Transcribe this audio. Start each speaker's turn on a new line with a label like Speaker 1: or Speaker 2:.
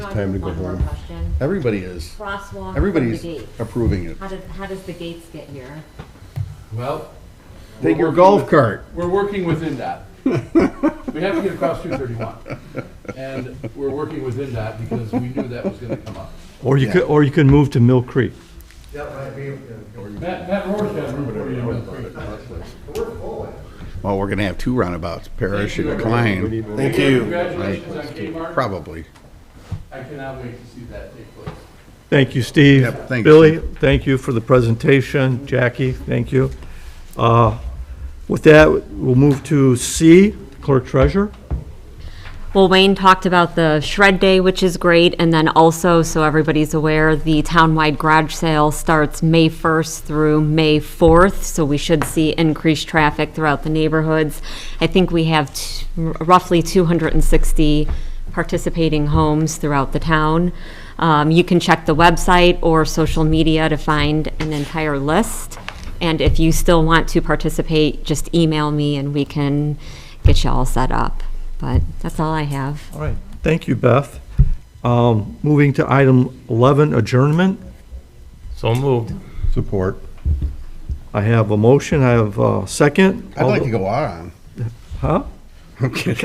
Speaker 1: Time to go
Speaker 2: One more
Speaker 1: home.
Speaker 2: question.
Speaker 1: Everybody is.
Speaker 2: Crosswalk from the
Speaker 1: Everybody's
Speaker 2: gate.
Speaker 1: approving it.
Speaker 2: How did, how does the gates get here?
Speaker 3: Well.
Speaker 1: Take your
Speaker 3: we're working
Speaker 1: golf
Speaker 3: with-
Speaker 1: cart.
Speaker 3: We're working within that. We have to get across two thirty-one. And we're working within that because we knew that was gonna come up.
Speaker 4: Or you could, or you can move to Mill Creek.
Speaker 3: Matt, Matt Rohr's got room for you in Mill Creek.
Speaker 1: Well, we're gonna have two roundabouts, Parrish and Klein,
Speaker 5: Thank you.
Speaker 3: Congratulations on Kmart.
Speaker 1: probably.
Speaker 3: I cannot wait to see that take place.
Speaker 4: Thank you, Steve.
Speaker 1: Yep, thanks,
Speaker 4: Billy, thank you for the presentation. Jackie, thank you. Uh, With that, we'll move to C, Clerk Treasurer.
Speaker 2: Well, Wayne talked about the shred day, which is great, and then also, so everybody's aware, the townwide garage sale starts May 1st through May 4th, so we should see increased traffic throughout the neighborhoods. I think we have t- roughly 260 participating homes throughout the town. Um, You can check the website or social media to find an entire list, and if you still want to participate, just email me and we can get you all set up but that's all I have.
Speaker 4: All right, thank you, Beth. Um, Moving to item 11, adjournment.
Speaker 6: So moved.
Speaker 1: Support.
Speaker 4: I have a motion, I have a second.
Speaker 1: I'd like to go on.
Speaker 4: Huh?
Speaker 1: I'm kidding.